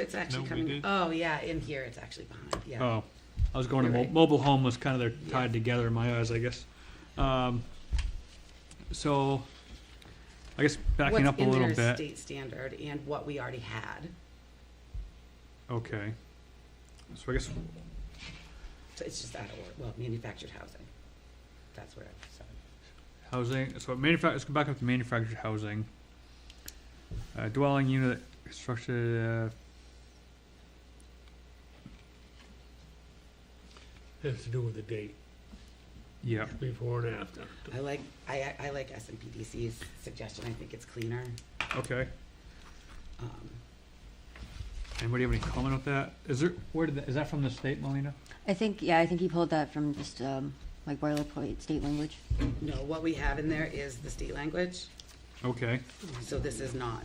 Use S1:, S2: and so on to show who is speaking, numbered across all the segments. S1: It's actually
S2: we
S1: coming,
S2: did.
S1: oh, yeah, in here, it's actually behind, yeah.
S2: Oh, I was going to,
S1: You're
S2: mo-
S1: right.
S2: mobile home was kind of there tied together in my eyes, I guess. Um, So, I guess backing up a little
S1: What's in there is
S2: bit,
S1: state standard and what we already had.
S2: okay. So I guess,
S1: So it's just out of order, well, manufactured housing. That's where I'm, sorry.
S2: housing, so manufac, let's go back up to manufactured housing. Uh, Dwelling unit constructed, uh,
S3: Has to do with the date,
S2: yeah,
S3: before and after.
S1: I like, I, I like S and P D C's suggestion, I think it's cleaner.
S2: okay.
S1: Um,
S2: Anybody have any comment on that? Is there, where did, that- is that from the state, Melina?
S4: I think, yeah, I think he pulled that from just um, like boilerplate state language.
S1: No, what we have in there is the state language,
S2: Okay,
S1: so this is not.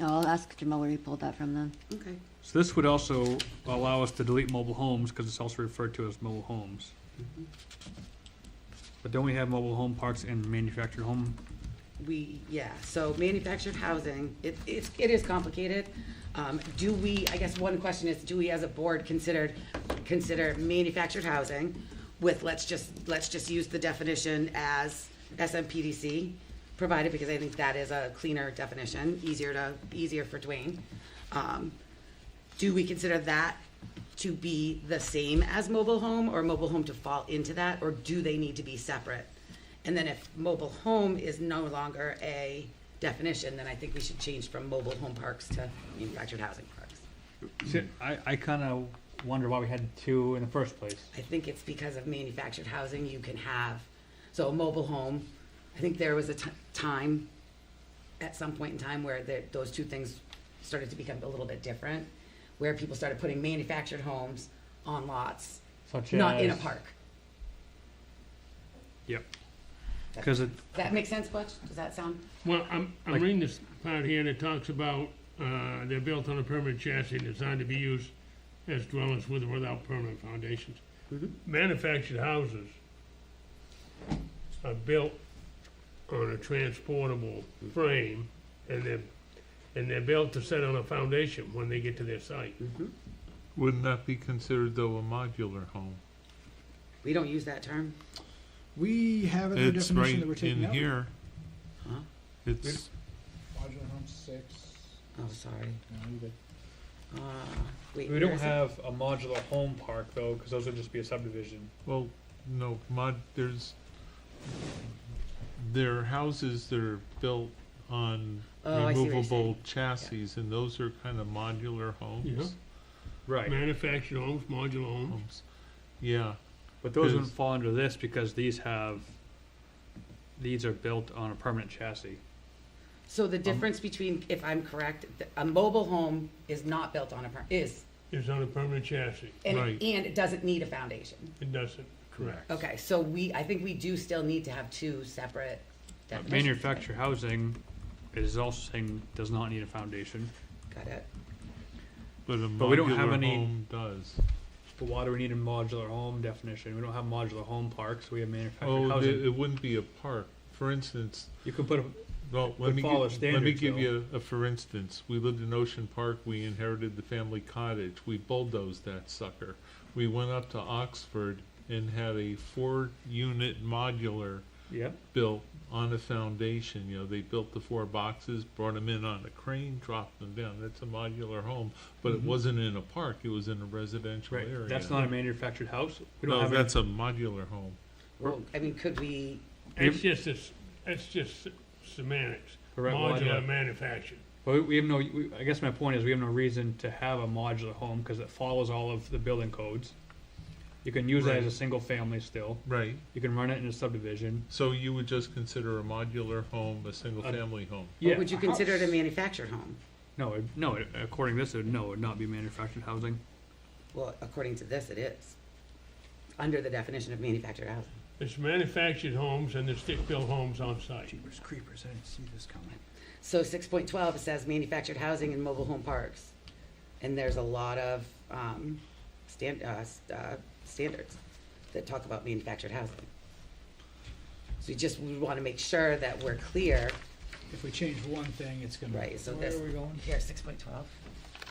S4: Oh, I'll ask Jamal where he pulled that from then.
S1: Okay.
S2: so this would also allow us to delete mobile homes, because it's also referred to as mobile homes. But don't we have mobile home parks and manufactured home?
S1: We, yeah, so manufactured housing, it, it's, it is complicated. Um, do we, I guess one question is, do we as a board considered, consider manufactured housing with, let's just, let's just use the definition as SMPDC provided, because I think that is a cleaner definition, easier to, easier for Dwayne. Um, do we consider that to be the same as mobile home or mobile home to fall into that, or do they need to be separate? And then if mobile home is no longer a definition, then I think we should change from mobile home parks to manufactured housing parks.
S2: See, I, I kind of wonder why we had two in the first place.
S1: I think it's because of manufactured housing, you can have, so a mobile home, I think there was a ti- time, at some point in time, where the, those two things started to become a little bit different, where people started putting manufactured homes on lots,
S2: Such
S1: not in a
S2: as-
S1: park.
S2: Yep. Because it,
S1: Does that make sense, Butch? Does that sound?
S3: Well, I'm, I'm
S2: Like-
S3: reading this part here that talks about, uh, they're built on a permanent chassis designed to be used as dwellings with or without permanent foundations. Manufactured houses are built on a transportable frame and they're, and they're built to set on a foundation when they get to their site.
S1: Mm-hmm.
S5: Wouldn't that be considered though a modular home?
S1: We don't use that term.
S6: We have it in the
S5: It's
S6: definition
S5: right
S6: that we're taking
S5: in
S6: out.
S5: here.
S1: Huh?
S5: It's,
S6: Modular home six.
S1: Oh, sorry.
S6: No, you good.
S1: Uh, wait,
S2: we
S1: where
S2: don't
S1: is it?
S2: have a modular home park though, because those would just be a subdivision.
S5: well, no, mod, there's, there are houses that are built on
S1: Oh, I see what you're
S5: removable
S1: saying.
S5: chassis and those are kind of modular homes.
S2: Right,
S3: Manufactured homes, modular homes.
S5: Homes. Yeah,
S2: but those
S5: Is-
S2: wouldn't fall under this because these have, these are built on a permanent chassis.
S1: So the difference between, if I'm correct, th- a mobile home is not built on a, per- is,
S3: It's on a permanent chassis.
S1: and,
S5: Right.
S1: it- and it doesn't need a foundation.
S3: It doesn't. Correct.
S1: Okay, so we, I think we do still need to have two separate
S2: Uh,
S1: definitions.
S2: Manufactured housing is also saying does not need a foundation.
S1: Got it.
S5: but a
S2: But we don't have
S5: modular
S2: any-
S5: home does.
S2: But why do we need a modular home definition? We don't have modular home parks, we have manufactured
S5: Oh, it
S2: housing.
S5: it wouldn't be a park. For instance,
S2: You can put a,
S5: Well,
S2: would
S5: let me,
S2: follow
S5: gi- let me
S2: standards,
S5: give
S2: though.
S5: you a, a for instance. We lived in Ocean Park. We inherited the family cottage. We bulldozed that sucker. We went up to Oxford and had a four-unit modular
S2: yeah,
S5: built on a foundation. You know, they built the four boxes, brought them in on a crane, dropped them down. That's a modular home, but it wasn't in a park. It was in a residential
S2: Mm-hmm. right,
S5: area.
S2: that's not a manufactured house. We don't
S5: No,
S2: have any-
S5: that's a modular home.
S1: Well, I mean, could we,
S3: It's just, it's, it's just semantics.
S2: Correct, well, I know.
S3: Modular manufactured.
S2: But we- we have no, we- I guess my point is, we have no reason to have a modular home, because it follows all of the building codes. You can use that as a
S5: Right.
S2: single family still,
S5: Right.
S2: you can run it in a subdivision.
S5: So you would just consider a modular home a single-family home.
S1: or
S2: Yeah,
S1: would you
S2: a
S1: consider it a
S2: house.
S1: manufactured home?
S2: No, it- no, it- according to this, it, would- no, it would not be manufactured housing.
S1: Well, according to this, it is, under the definition of manufactured housing.
S3: It's manufactured homes and the stick-built homes on site.
S7: Jeepers creepers, I didn't see this coming.
S1: So six point twelve says manufactured housing and mobile home parks, and there's a lot of, um, stand, uh, s- uh, standards that talk about manufactured housing. So you just, we wanna make sure that we're clear,
S6: If we change one thing, it's gonna.
S1: right, so
S6: Where
S1: this,
S6: are we going?
S1: here, six point twelve,